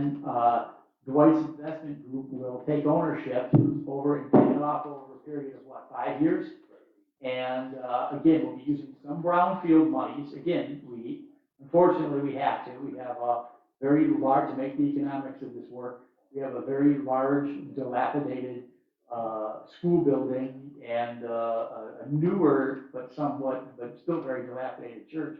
then, uh, Dwight's investment group will take ownership over and pay it off over a period of what, five years? And, uh, again, we'll be using some brownfield monies, again, we, unfortunately, we have to, we have a very large, to make the economics of this work, we have a very large dilapidated, uh, school building and, uh, a a newer, but somewhat, but still very dilapidated church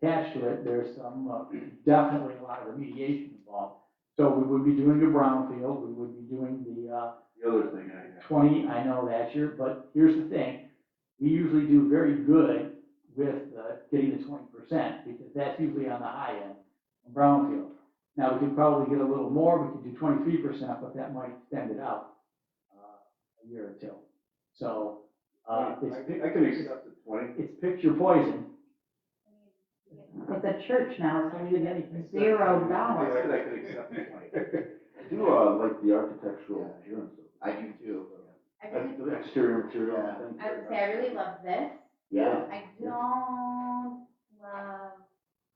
attached to it, there's some, uh, definitely a lot of remediation involved. So we would be doing the brownfield, we would be doing the, uh, The other thing I have. twenty, I know that year, but here's the thing. We usually do very good with, uh, getting the twenty percent, because that's usually on the high end, in brownfield. Now, we could probably get a little more, we could do twenty-three percent, but that might extend it out, uh, a year or two. So, uh, it's, I think I can accept the twenty. it's picture poison, It's a church now, so you get zero I said dollars. I could accept the twenty. I do, uh, like the architectural appearance I do too. I of it. really, Uh, The exterior material, I think. I would say I really love this. Yeah. I don't love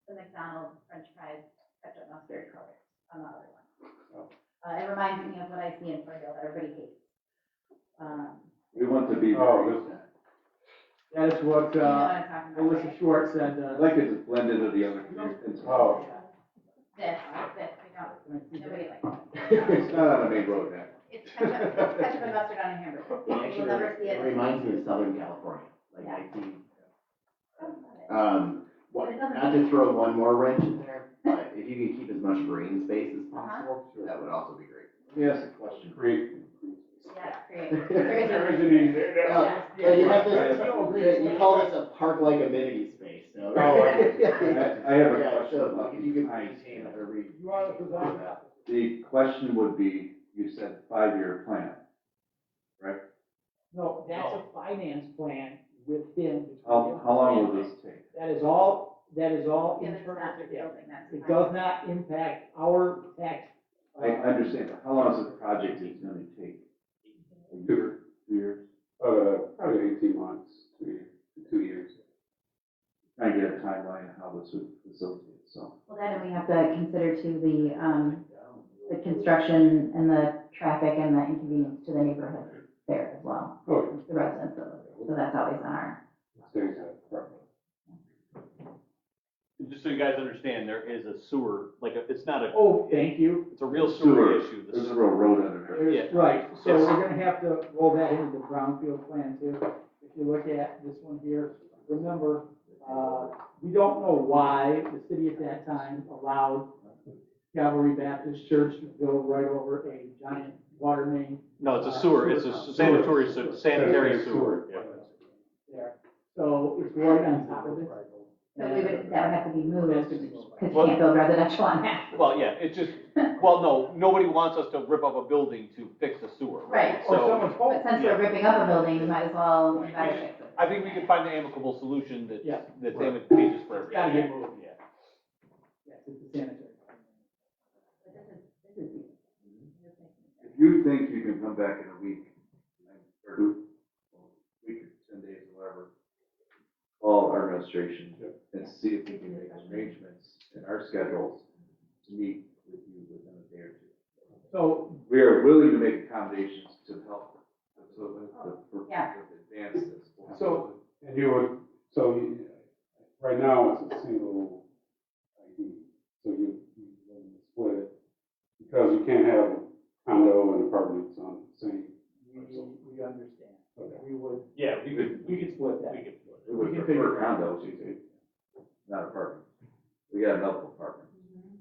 the McDonald's French fries ketchup mustard color on the other one. Uh, it reminds me of what I see in Fargo that everybody hates. Um, We want to be. Oh, very- that is what, you know what uh, I'm talking about, Melissa right? Schwartz said, I uh, like it, it's blended with the other. it's- Oh. This, this, McDonald's, nobody likes It's not on a main road now. it. It's ketchup, it's ketchup and mustard on a hamburger. You will never see It it. reminds me of Southern California, like Yeah. I think, I don't love Oh, it. um, what- not to throw one more wrench in there, but if you could keep as much green space as possible, that would also be great. Let me ask a question. Create. Yeah, it's great. There Seriously. isn't any there now. Yeah. Yeah, you have this, you call this a park-like amenity space, so. Oh, I- I I have a Yeah, question so about if you could the maintain it every. You are the designer. The question would be, you said five-year plan. No, that's a finance plan within. the How, how long will this take? That is all, that is all Yeah, that's internal. not the building, that's. It fine. does not impact our tax. I I understand, but how long is the project is gonna take? A year, two years? Uh, probably eighteen months, three, two years. Trying to get a timeline on how this would facilitate, so. Well, then we have to consider to the, um, the construction and the traffic and the inconvenience to the neighborhood there as well, Oh, the residents of it. So that's always on our, yeah, there's a problem. Just so you guys understand, there is a sewer, like, it's not a, oh, thank you. it's a real sewer issue. The There's a sewer- real road under there. There's- Yeah. Right, so Yes. we're gonna have to roll that into the brownfield plan too. If you look at this one here, remember, uh, we don't know why the city at that time allowed Calvary Baptist Church to go right over a giant water main No, it's a sewer, it's a sanitary, se- sanitary sewer. Yeah. there. So it's right on top of it. so we would, that would have to be moved, That's gonna be- because you can't build residential on that. Well, yeah, it's just, well, no, nobody wants us to rip up a building to fix a sewer, right? Right. Or So someone's But fault. since we're ripping up a building, we might as well, invite it. I think we can find an amicable solution that's, Yeah. that's advantageous for It's gotta get everybody. moved. Yeah. Yes, it's a sanitary. But this is, this is. this is- If you think you can come back in a week, or a week or ten days, whatever, call our administration and see if we can make arrangements in our schedules to meet with you within a day or two. So, We are willing to make accommodations to help, to, to, to Yeah. advance this. So- And you would, so you, right now it's a single ID, so you, you wouldn't split it. Because you can't have condo and apartments on the same. we, we understand. Okay. We would, Yeah, we could, we could split that. we could. We would We can prefer figure it out. condos, you see, not apartments. We got enough apartments. Mm-hmm.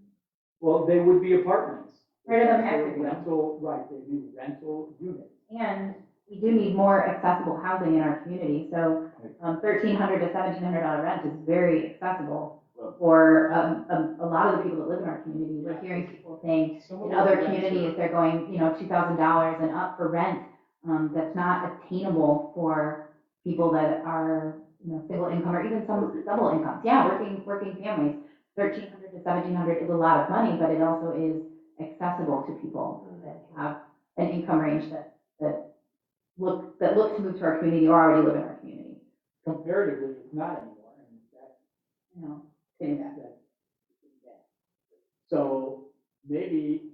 Well, they would be apartments. Right, I'm happy with that. Rental, right, they'd be rental units. And we do need more accessible housing in our community, so um, thirteen hundred to seventeen hundred dollar rent is very accessible for um, a, a lot of the people that live in our community. We're hearing people saying, in other communities, they're going, you know, two thousand dollars and up for rent. Um, that's not attainable for people that are, you know, single income or even some double incomes. Yeah, working, working families, thirteen hundred to seventeen hundred is a lot of money, but it also is accessible to people that have an income range that, that look, that look to move to our community or already live in our community, Comparatively, it's not anymore, and that, you know? that- that. So maybe